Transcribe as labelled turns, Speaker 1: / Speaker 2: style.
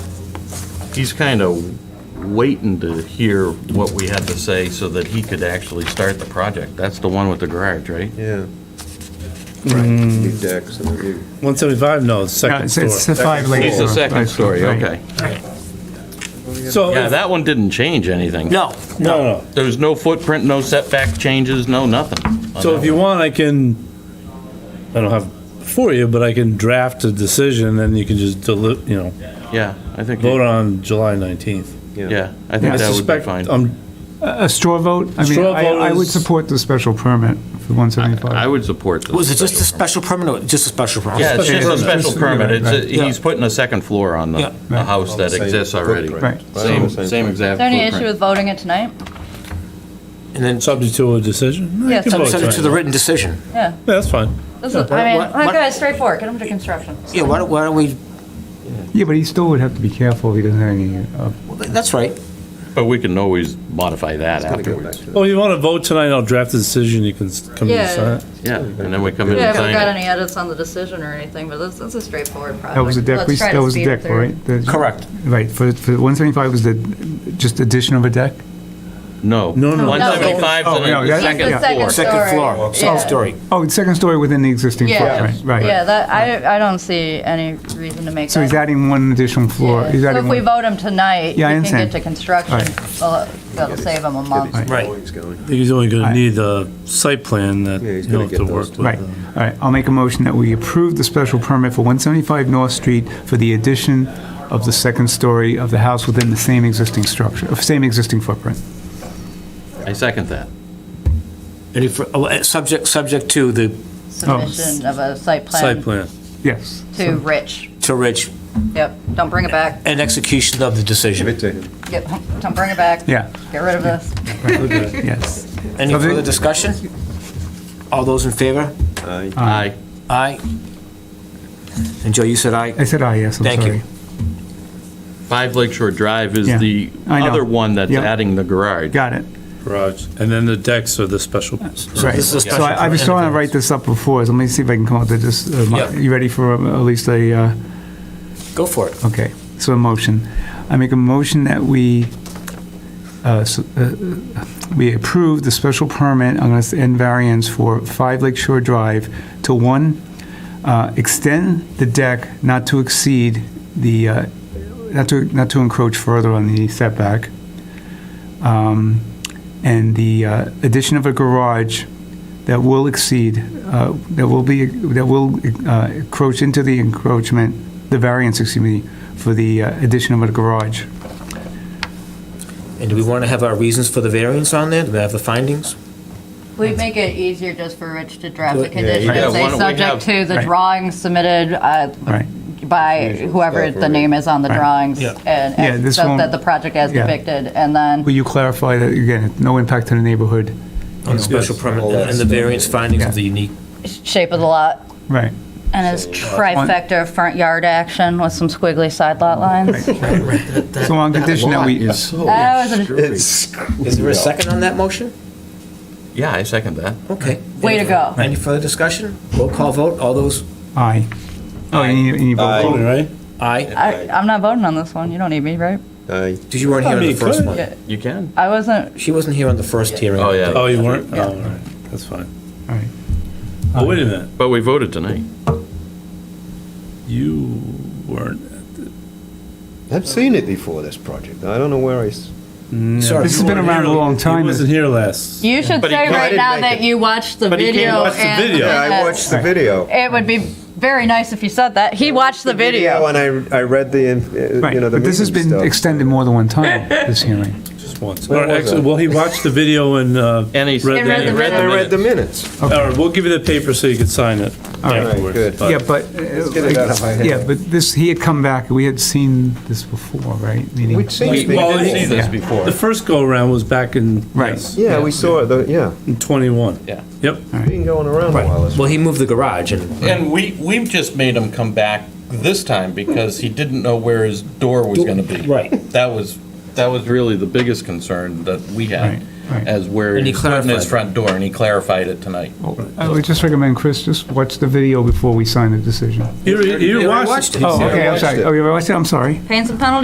Speaker 1: he's kind of waiting to hear what we had to say so that he could actually start the project. That's the one with the garage, right?
Speaker 2: Yeah. Right.
Speaker 3: Mm.
Speaker 2: New decks and a new.
Speaker 4: 175, no, it's second
Speaker 3: Yeah, It's
Speaker 4: floor.
Speaker 3: it's the five lane.
Speaker 1: It's the second story, okay.
Speaker 4: So,
Speaker 1: Yeah,
Speaker 4: if-
Speaker 1: that one didn't change anything.
Speaker 5: No,
Speaker 4: no, no.
Speaker 1: There's no footprint, no setback changes, no nothing. on
Speaker 4: So
Speaker 1: that
Speaker 4: if you
Speaker 1: one.
Speaker 4: want, I can, I don't have it for you, but I can draft a decision and you can just deli, you know,
Speaker 1: Yeah, I think,
Speaker 4: vote on July 19th.
Speaker 1: yeah, I
Speaker 4: I
Speaker 1: think that would be
Speaker 4: suspect,
Speaker 1: fine.
Speaker 4: um,
Speaker 3: A a straw vote? I mean,
Speaker 4: Straw
Speaker 3: I
Speaker 4: vote
Speaker 3: I would
Speaker 4: is-
Speaker 3: support the special permit for
Speaker 1: I
Speaker 3: 175.
Speaker 1: would support this.
Speaker 5: was it just a
Speaker 1: special
Speaker 5: special permit or just a special permit?
Speaker 1: Yeah, it's just a
Speaker 4: Special permit.
Speaker 1: special permit. It's, a-
Speaker 5: Yeah.
Speaker 1: he's putting a second floor on
Speaker 5: Yeah.
Speaker 1: the, the house that
Speaker 2: Same
Speaker 1: exists already.
Speaker 2: footprint.
Speaker 3: Right.
Speaker 1: Same, same
Speaker 6: Is
Speaker 1: exact
Speaker 6: there any issue
Speaker 1: footprint.
Speaker 6: with voting it tonight?
Speaker 5: And then sub-
Speaker 4: subject to a decision? No, you
Speaker 6: Yeah,
Speaker 4: can
Speaker 6: sub-
Speaker 4: vote
Speaker 5: send it to the
Speaker 4: tonight.
Speaker 5: written decision.
Speaker 6: Yeah.
Speaker 4: Yeah, That's fine.
Speaker 6: This is- I mean,
Speaker 5: What-
Speaker 6: like,
Speaker 5: what-
Speaker 6: guys, straightforward, get them to construction.
Speaker 5: Yeah, why don't, why don't we,
Speaker 3: Yeah, but he still would have to be careful, he doesn't have any, uh,
Speaker 5: that's right.
Speaker 1: But we can always modify that
Speaker 2: Gotta go back
Speaker 1: afterwards.
Speaker 2: to the-
Speaker 4: Oh, you want to vote tonight, I'll draft the decision, you can s- come and
Speaker 6: Yeah.
Speaker 4: sign it.
Speaker 1: Yeah, and then we come
Speaker 6: We
Speaker 1: in and
Speaker 6: haven't got
Speaker 1: sign it.
Speaker 6: any edits on the decision or anything, but this, this is a straightforward project.
Speaker 3: that was a deck,
Speaker 6: Let's
Speaker 3: we-
Speaker 6: try
Speaker 3: that
Speaker 6: to
Speaker 3: was a
Speaker 6: speed it
Speaker 3: deck,
Speaker 6: through.
Speaker 3: right? The-
Speaker 5: Correct.
Speaker 3: Right, for, for 175 was the, just addition of a deck?
Speaker 1: No.
Speaker 4: No, no.
Speaker 1: One seventy-five
Speaker 3: Oh, no,
Speaker 1: and
Speaker 3: that-
Speaker 1: then
Speaker 6: It's
Speaker 1: the
Speaker 6: the
Speaker 1: second floor.
Speaker 5: Second floor,
Speaker 6: Story,
Speaker 5: second
Speaker 6: yeah.
Speaker 5: story.
Speaker 3: Oh, it's second story within the existing
Speaker 6: Yeah,
Speaker 3: footprint, right?
Speaker 6: yeah, that, I, I don't see any reason to make that.
Speaker 3: So he's adding one additional floor,
Speaker 6: Yeah,
Speaker 3: he's
Speaker 6: So
Speaker 3: adding
Speaker 6: if we
Speaker 3: one,
Speaker 6: vote him tonight, he
Speaker 3: Yeah, I
Speaker 6: can
Speaker 3: understand.
Speaker 6: get to construction,
Speaker 3: Right.
Speaker 6: well, that'll save him a month.
Speaker 2: Get his
Speaker 5: Right.
Speaker 2: drawings going.
Speaker 4: I think he's only going to
Speaker 3: Alright.
Speaker 4: need a site plan that
Speaker 2: Yeah, he's
Speaker 4: you'll
Speaker 2: gonna
Speaker 4: have
Speaker 2: get
Speaker 4: to
Speaker 2: those
Speaker 4: work
Speaker 2: too.
Speaker 4: with.
Speaker 5: um,
Speaker 3: right, all right, I'll make a motion that we approve the special permit for 175 North Street for the addition of the second story of the house within the same existing structure, of same existing footprint.
Speaker 1: I second that.
Speaker 5: Any, fr- oh, eh, subject, subject to the,
Speaker 6: Submission of a site
Speaker 4: Site
Speaker 6: plan
Speaker 4: plan.
Speaker 3: Yes.
Speaker 6: to Rich,
Speaker 5: to Rich,
Speaker 6: yep, don't bring it back,
Speaker 5: and execution of the
Speaker 2: Give
Speaker 5: decision.
Speaker 2: it to him.
Speaker 6: yep, don't bring it back.
Speaker 3: Yeah.
Speaker 6: Get rid of this.
Speaker 3: Yes.
Speaker 5: Any further discussion? All those in favor?
Speaker 2: Aye.
Speaker 1: Aye.
Speaker 5: Aye. And Joe, you said aye?
Speaker 3: Uh, I said aye, yes, I'm sorry.
Speaker 5: Thank you.
Speaker 1: Five Lakeshore Drive is
Speaker 3: Yeah,
Speaker 1: the
Speaker 3: I know.
Speaker 1: other one that's
Speaker 3: Yep.
Speaker 1: adding the garage.
Speaker 3: Got it,
Speaker 4: Garage. And then the decks are the special.
Speaker 3: right.
Speaker 5: This is
Speaker 3: So
Speaker 5: a special
Speaker 3: I I was
Speaker 5: permit.
Speaker 3: trying to write this up before, so let me see if I can come up with this. uh, mo-
Speaker 5: Yeah.
Speaker 3: You ready for uh, at least a, uh,
Speaker 5: Go for it.
Speaker 3: okay, so a motion. I make a motion that we, uh, s- uh, we approve the special permit, I'm going to, and variance for 5 Lake Shore Drive to, one, uh, extend the deck not to exceed the, uh, not to, not to encroach further on the setback. Um, And the uh, addition of a garage that will exceed, uh, that will be, that will uh, encroach into the encroachment, the variance, excuse me, for the uh, addition of a garage.
Speaker 5: And do we want to have our reasons for the variance on there? Do we have the findings?
Speaker 6: We'd make it easier just for Rich to draft the
Speaker 5: Yeah,
Speaker 6: condition
Speaker 1: yeah, why
Speaker 6: and say,
Speaker 1: don't we have-
Speaker 6: subject to the
Speaker 3: Right.
Speaker 6: drawings submitted uh,
Speaker 3: Right.
Speaker 6: by
Speaker 2: Usual
Speaker 6: whoever
Speaker 2: stuff,
Speaker 6: the
Speaker 2: right.
Speaker 6: name is on the
Speaker 3: Right.
Speaker 6: drawings,
Speaker 5: Yeah.
Speaker 6: and
Speaker 3: Yeah,
Speaker 6: and
Speaker 3: this
Speaker 6: so
Speaker 3: won't-
Speaker 6: that the project as
Speaker 3: yeah.
Speaker 6: depicted, and then,
Speaker 3: Will you clarify that, again, no impact to the neighborhood?
Speaker 5: On the special permit
Speaker 2: All that
Speaker 5: and the
Speaker 2: stuff.
Speaker 5: variance findings of
Speaker 3: Yeah.
Speaker 5: the unique
Speaker 6: shape of the lot,
Speaker 3: Right.
Speaker 6: and his trifecta of front yard action with some squiggly side lot lines.
Speaker 3: So on condition that we,
Speaker 6: That was a-
Speaker 5: Is there a second on that motion?
Speaker 1: Yeah, I second that.
Speaker 5: Okay.
Speaker 6: Way to go.
Speaker 5: Any further discussion? Roll call vote, all those
Speaker 3: aye. Oh, you need, you need
Speaker 2: Aye.
Speaker 3: vote.
Speaker 4: Right?
Speaker 5: aye?
Speaker 6: I- I'm not voting on this one, you don't need me, right?
Speaker 2: Aye.
Speaker 5: Did you weren't
Speaker 4: I
Speaker 5: here on
Speaker 4: mean,
Speaker 5: the
Speaker 4: you
Speaker 5: first
Speaker 4: could.
Speaker 5: one?
Speaker 4: Yeah.
Speaker 1: You can.
Speaker 6: I wasn't,
Speaker 5: She wasn't here on the first hearing.
Speaker 1: Oh, yeah.
Speaker 4: Oh, you weren't?
Speaker 6: Yeah.
Speaker 4: Oh, all right. That's fine.
Speaker 3: All right. Uh,
Speaker 4: Oh, wait a minute.
Speaker 1: But we voted tonight.
Speaker 4: You weren't.
Speaker 2: I've seen it before, this project. I don't know where I, s-
Speaker 5: Sorry.
Speaker 3: This has been around a long time.
Speaker 4: He wasn't here last.
Speaker 6: you should
Speaker 1: But he
Speaker 6: say
Speaker 1: can't-
Speaker 6: right
Speaker 2: I
Speaker 6: now
Speaker 2: didn't make
Speaker 6: that
Speaker 2: it.
Speaker 6: you watched the
Speaker 4: But he can't
Speaker 6: video.
Speaker 4: watch the
Speaker 6: and
Speaker 4: video.
Speaker 2: yeah, I
Speaker 6: minutes.
Speaker 2: watched the video.
Speaker 6: It would be very nice if you said that. He watched the video.
Speaker 2: And I, I read the, uh,
Speaker 3: Right,
Speaker 2: you know, the
Speaker 3: but this has
Speaker 2: meeting
Speaker 3: been
Speaker 2: stuff.
Speaker 3: extended more than one time, this hearing.
Speaker 4: Just once.
Speaker 2: Where
Speaker 4: Or
Speaker 2: was I?
Speaker 4: actually, well, he watched the video and, uh,
Speaker 1: And he.
Speaker 4: Read
Speaker 1: and
Speaker 6: the
Speaker 1: he
Speaker 6: minutes.
Speaker 1: read
Speaker 2: I read the
Speaker 1: minutes.
Speaker 2: minutes.
Speaker 4: all right, we'll give you the paper so you can sign it
Speaker 3: right,
Speaker 4: afterwards.
Speaker 2: good.
Speaker 4: but-
Speaker 3: Yeah, but,
Speaker 2: get it out of my
Speaker 3: uh,
Speaker 2: head.
Speaker 3: yeah, but this, he had come back, we had seen this before, right? Meaning-
Speaker 2: We'd seen
Speaker 1: We
Speaker 2: it
Speaker 1: we
Speaker 4: Well,
Speaker 1: did
Speaker 4: he-
Speaker 1: see
Speaker 2: before.
Speaker 1: this
Speaker 3: yeah.
Speaker 1: before.
Speaker 4: The first go-around was back in.
Speaker 3: Right.
Speaker 4: yes,
Speaker 2: Yeah, we saw it, though, yeah.
Speaker 4: in 21.
Speaker 1: Yeah.
Speaker 4: Yep.
Speaker 2: Been going around a while. this-
Speaker 5: Well, he moved the garage and
Speaker 1: And we, we've just made him come back this time because he didn't know where his door was gonna be.
Speaker 5: Right.
Speaker 1: That was, that was really the biggest concern that we had,
Speaker 3: Right, right.
Speaker 1: as where
Speaker 5: And he
Speaker 1: he's putting his
Speaker 5: clarified.
Speaker 1: front door, and he clarified it tonight.
Speaker 3: I would just recommend, Chris, just watch the video before we sign the decision.
Speaker 4: You,
Speaker 5: Yeah, I
Speaker 4: you watched
Speaker 5: watched
Speaker 4: it.
Speaker 5: it.
Speaker 3: Oh, okay, I'm
Speaker 2: watched
Speaker 3: sorry.
Speaker 2: it.
Speaker 3: Oh, you watched it, I'm sorry.
Speaker 6: Pains and penalties